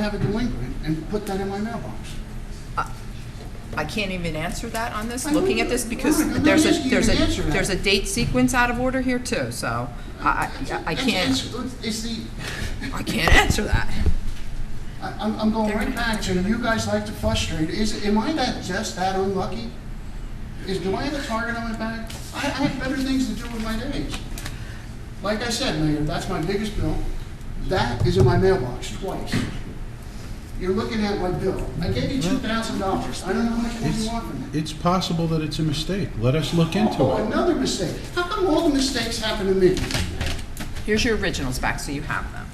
have a delinquent and put that in my mailbox. I can't even answer that on this, I looking know- at this, because Right, I'm not there's asking a, you there's to a, answer that. there's a date sequence out of order here too, so I, I- I It's- can't, It's, it's the, I can't answer that. I- I'm, I'm going They're right gonna back have to, to- you guys like to frustrate, is, am I that, just that unlucky? Is, do I have a target on my back? I, I have better things to do with my days. Like I said, Mayor, that's my biggest bill, that is in my mailbox twice. You're looking at my bill, I gave you two thousand dollars, I don't know how much more you It's, want from me. it's possible that it's a mistake. Let us look Oh, into it. another mistake, how come all the mistakes happen to me? Here's your originals back, so you have them.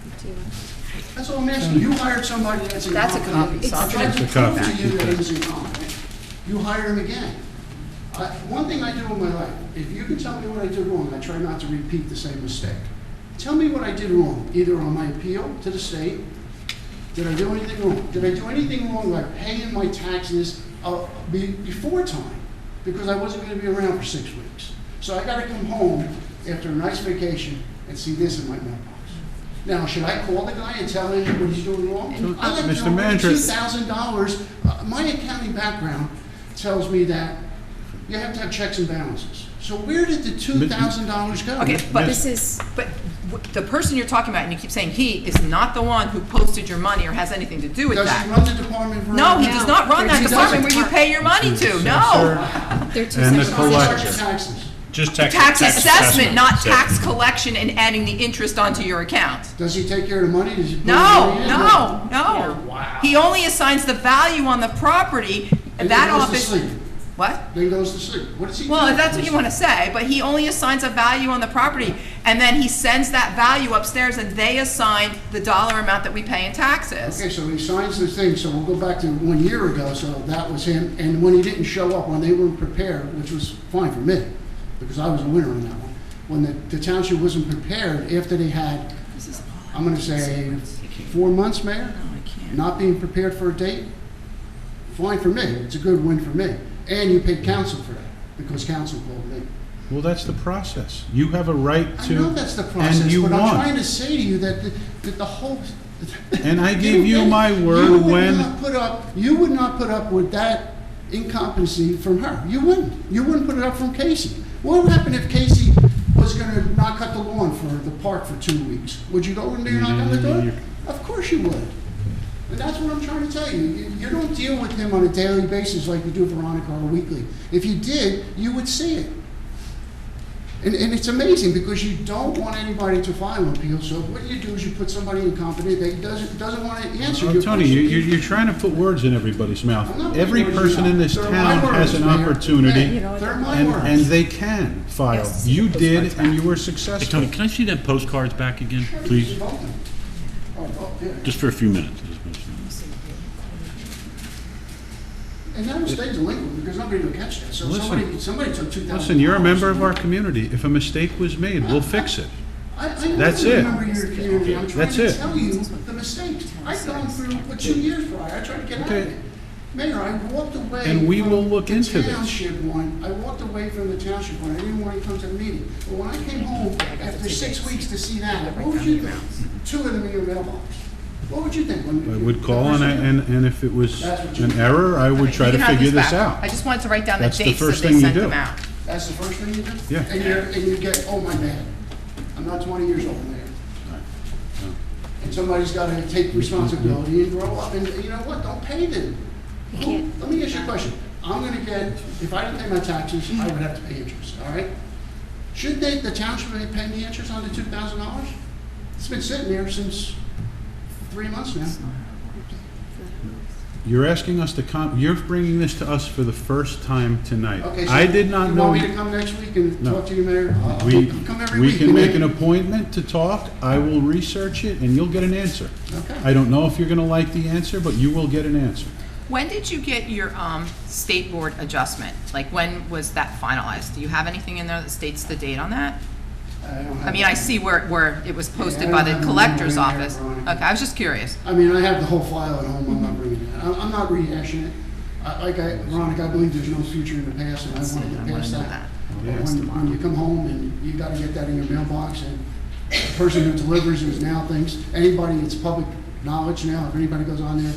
That's all I'm asking. You hired somebody that's That's a incompetent. copy, so I'll I tried to It's a prove copy. to you that he was incompetent. You hire him again. I- One thing I do in my life, if you can tell me what I did wrong, I try not to repeat the same mistake. Tell me what I did wrong, either on my appeal to the state, did I do anything wrong? Did I do anything wrong like paying my taxes uh, be- before time? Because I wasn't going to be around for six weeks. So I got to come home after a nice vacation and see this in my mailbox. Now, should I call the guy and tell him what he's doing wrong? I like to Mr. know what Manager- $2,000, uh, my accounting background tells me that you have to have checks and balances. So where did the $2,000 go? Okay, but This this is, but w- the person you're talking about, and you keep saying he, is not the one who posted your money or has anything to do with Does he that. run the department? for- No, he does not run that He department where you doesn't. pay your money to, no. Sir, They're two And the separate How much are collector. taxes? Just tax. Tax assessment, not assessment. tax collection and adding the interest onto your account. Does he take care of the money? Does he put No, it in? no, no. Wow. He only assigns the value on the property, And that then goes to office. sleep. What? Then goes to sleep. What does he do? Well, if that's what you want to say, but he only assigns a value on the property, and then he sends that value upstairs, and they assign the dollar amount that we pay in Okay, taxes. so he signs the thing, so we'll go back to one year ago, so that was him, and when he didn't show up, when they weren't prepared, which was fine for me, because I was a winner on that one, when the, the township wasn't prepared after they had, I'm gonna say, four months, Mayor? Not being prepared for a date, fine for me, it's a good win for me, and you paid council for that, because council called me. well, that's the process. You have a right I to. know that's the process, And you but I'm trying won. to say to you that, the- that the whole. And I gave you didn't- my word you would when- not Put up, you would not put up with that incompetency from her. You wouldn't. You wouldn't put it up from Casey. What would happen if Casey was gonna not cut the lawn for the park for two weeks? Would you go in there and knock on the Mm-hmm. door? Of course you would. And that's what I'm trying to tell you. You, you don't deal with him on a daily basis like you do Veronica or weekly. If you did, you would see it. And, and it's amazing because you don't want anybody to file an appeal, so what you do is you put somebody incompetent that doesn't, doesn't want to answer Oh, your question. Tony, you, you're, you're trying to put words in everybody's I'm not mouth. Every putting words person your in this mouth. They're my town has words, an Mayor. opportunity, Hey, They're my and, and words. they can file. Yes. You did, and you were Hey, Tony, successful. can I see them postcards back again, please? Oh, oh, yeah. Just for a few minutes. And that'll stay delinquent because nobody will catch that, so Listen. somebody, somebody took two thousand. Listen, you're a member of our community. If a mistake was made, we'll fix it. I, I know That's you it. remember your community, I'm trying That's to it. tell you the mistakes. I've gone through, for two years prior, I tried to get out of Okay. it. Mayor, I walked away. And we from will look the into this. Township one, I walked away from the township one, I didn't want to come to the meeting. But when I came home after six weeks to see that, what would you think? Two of them in your mailbox. What would you think? I would call, and, I- and, and if it was That's what you an do. error, I would try You to can have figure these this back. I out. just wanted to write down the That's the dates that first they thing you sent do. them out. That's the first thing you do? Yeah. And you're, and you get, oh my man, I'm not twenty years old, Mayor. And somebody's gotta take responsibility and grow up, and you know what, don't pay them. Who- Let me ask you a question, I'm gonna get, if I didn't pay my taxes, I would have to pay interest, all right? Should they, the township be paying the interest on the two thousand dollars? It's been sitting there since three months now. You're asking us to come, you're bringing this to us for the first time tonight. Okay, so I did not know. You want me to come next week and No. talk to you, Mayor? I'll- I'll We, come every we week, can you make know? an appointment to talk, I will research it, and you'll get an answer. Okay. I don't know if you're gonna like the answer, but you will get an answer. When did you get your um, state board adjustment? Like, when was that finalized? Do you have anything in there that states the date on that? I mean, I see where, where it was posted by the Yeah, I don't have it collector's in there, office. Veronica. Okay, I was just curious. I mean, I have the whole file at home, I'm not bringing it, I'm, I'm not rehashing it. I, like I, Veronica, I believe there's no future in the past, and I want to I get wanna past know that. that. But When, when you come home and you gotta get that in your mailbox, and the person who delivers is now thinks, anybody that's public knowledge now, if anybody goes on there